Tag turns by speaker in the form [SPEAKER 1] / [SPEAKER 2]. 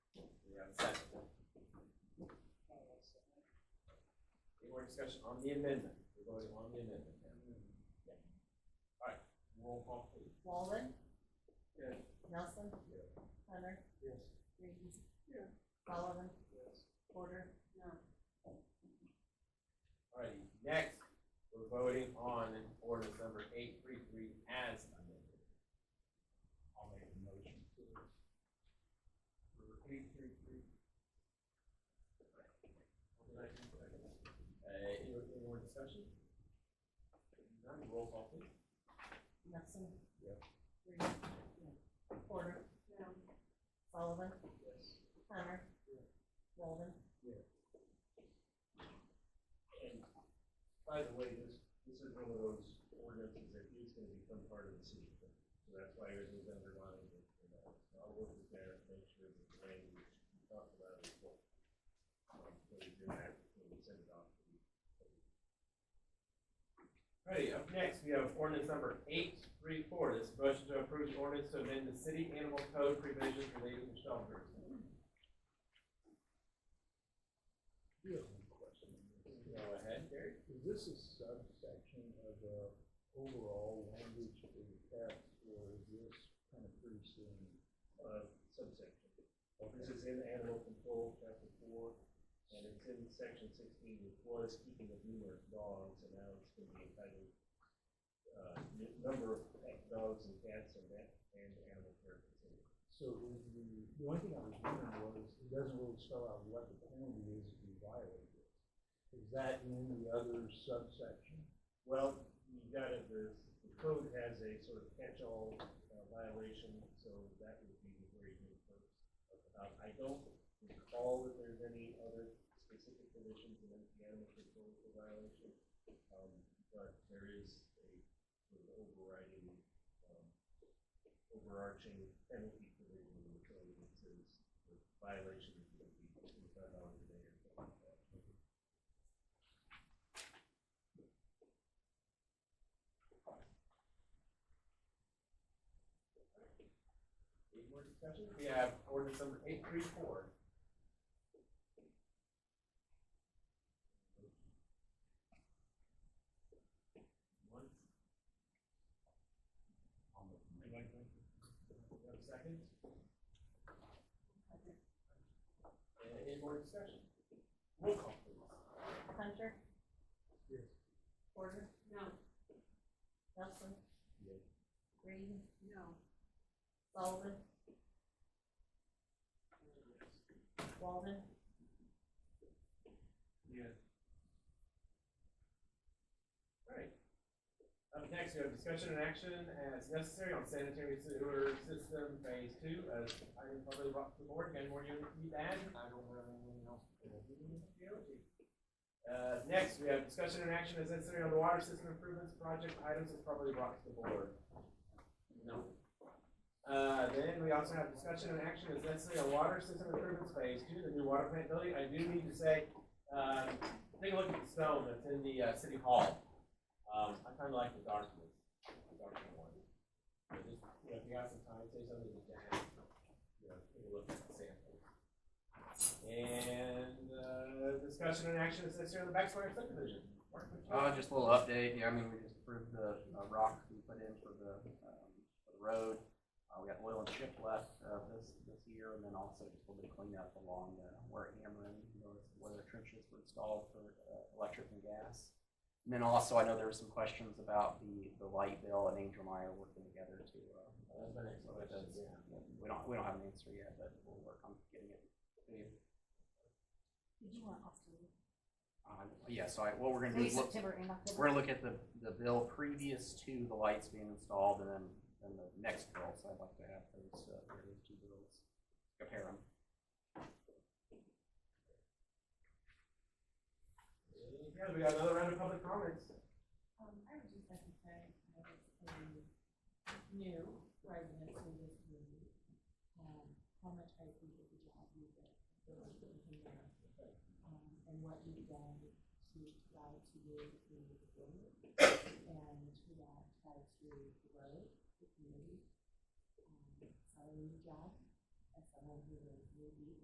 [SPEAKER 1] Any more discussion on the amendment? We're voting on the amendment now. Yeah. All right, roll call please.
[SPEAKER 2] Walden,
[SPEAKER 1] Yes.
[SPEAKER 2] Nelson,
[SPEAKER 1] Yeah.
[SPEAKER 2] Hunter,
[SPEAKER 1] Yes.
[SPEAKER 2] Reed.
[SPEAKER 1] Yeah.
[SPEAKER 2] Sullivan,
[SPEAKER 1] Yes.
[SPEAKER 2] Porter. No.
[SPEAKER 1] All righty, next, we're voting on ordinance number eight three three as amended.
[SPEAKER 3] I'll make a motion to
[SPEAKER 1] Eight three three. Uh, any, any more discussion? None, roll call please.
[SPEAKER 2] Nelson.
[SPEAKER 1] Yeah.
[SPEAKER 2] Reed. Porter. No. Sullivan,
[SPEAKER 1] Yes.
[SPEAKER 2] Hunter.
[SPEAKER 1] Yeah.
[SPEAKER 2] Walden.
[SPEAKER 4] And by the way, this, this is one of those ordinances that is gonna become part of the city. code. So that's why it was underlined, and, you know, so I'll work with Mayor and make sure that the language we talked about is what, um, what we do that, when we send it off to the
[SPEAKER 1] Alrighty, up next, we have ordinance number eight three four, this is a motion to approve the ordinance to amend the city animal code provisions related to shelters.
[SPEAKER 3] do have one question.
[SPEAKER 1] Go ahead, Gary.
[SPEAKER 3] Is this a subsection of the overall language for the cats, or is this kind of pretty soon?
[SPEAKER 4] uh, subsection. This is in animal control, chapter four, and it's in section sixteen, it was keeping of numerous dogs, and now it's gonna be entitled uh, n- number of pet dogs and cats and that, and animal care facility.
[SPEAKER 3] So is the, the only thing I was wondering was, it doesn't really spell out what the penalty is if you violate it. Is that in the other subsection?
[SPEAKER 4] Well, you got it, the, the code has a sort of catch-all uh, violation, so that would be the very good first. Um, I don't recall that there's any other specific conditions in the animal control for violation, um, but there is a sort of overriding, um, overarching penalty provision in the code that says the violation is going to be twenty-five dollars a day or something like that.
[SPEAKER 1] Any more discussion? We have ordinance number eight three four. One. You have a second? And any more discussion? Roll call please.
[SPEAKER 2] Hunter.
[SPEAKER 3] Yes.
[SPEAKER 2] Porter. No. Nelson.
[SPEAKER 4] Yeah.
[SPEAKER 2] Reed. No. Sullivan. Walden.
[SPEAKER 1] Alright. Up next, we have discussion and action as necessary on sanitary sewer system phase two, as I am probably brought to the board, again, more you need to add, I don't have anything else. to do. Uh, next, we have discussion and action as necessary on the water system improvements project items as probably brought to the board. No. Uh, then we also have discussion and action as necessary on water system improvements phase two, the new water plant building, I do need to say, um, take a look at the stone that's in the, uh, city hall. Um, I kinda like the dark one, the dark one. So just, you know, if you have some time, say something to Dan, you know, take a look at the sample. And, uh, discussion and action is necessary on the backstory subdivision. Mark, what you-
[SPEAKER 5] Uh, just a little update, yeah, I mean, we just approved the, uh, rock we put in for the, um, for the road. Uh, we got oil and chip left, uh, this, this year, and then also just a little bit of cleanup along the, where Ameren, you know, where the trenches were installed for, uh, electric and gas. And then also, I know there were some questions about the, the light bill and Angel and I are working together to, uh, uh,
[SPEAKER 1] That's my next
[SPEAKER 5] so that
[SPEAKER 1] question,
[SPEAKER 5] is-
[SPEAKER 1] yeah.
[SPEAKER 5] we don't, we don't have an answer yet, but we'll work on getting it, getting it,
[SPEAKER 2] Did you want October?
[SPEAKER 5] uh, yeah, so I, what we're gonna do
[SPEAKER 2] Maybe
[SPEAKER 5] is look.
[SPEAKER 2] September and October.
[SPEAKER 5] We're gonna look at the, the bill previous to the lights being installed and then, then the next bill, so I'd like to have those, uh, those two bills, compare them.
[SPEAKER 1] Yeah, we got another round of public comments.
[SPEAKER 2] Um, I would just like to say, I was a new resident to this community, um, how much I appreciate the job you did, the work that you did, um, and what you've done to try to move the community forward, and to that try to grow the community. Um, So a new job, as someone who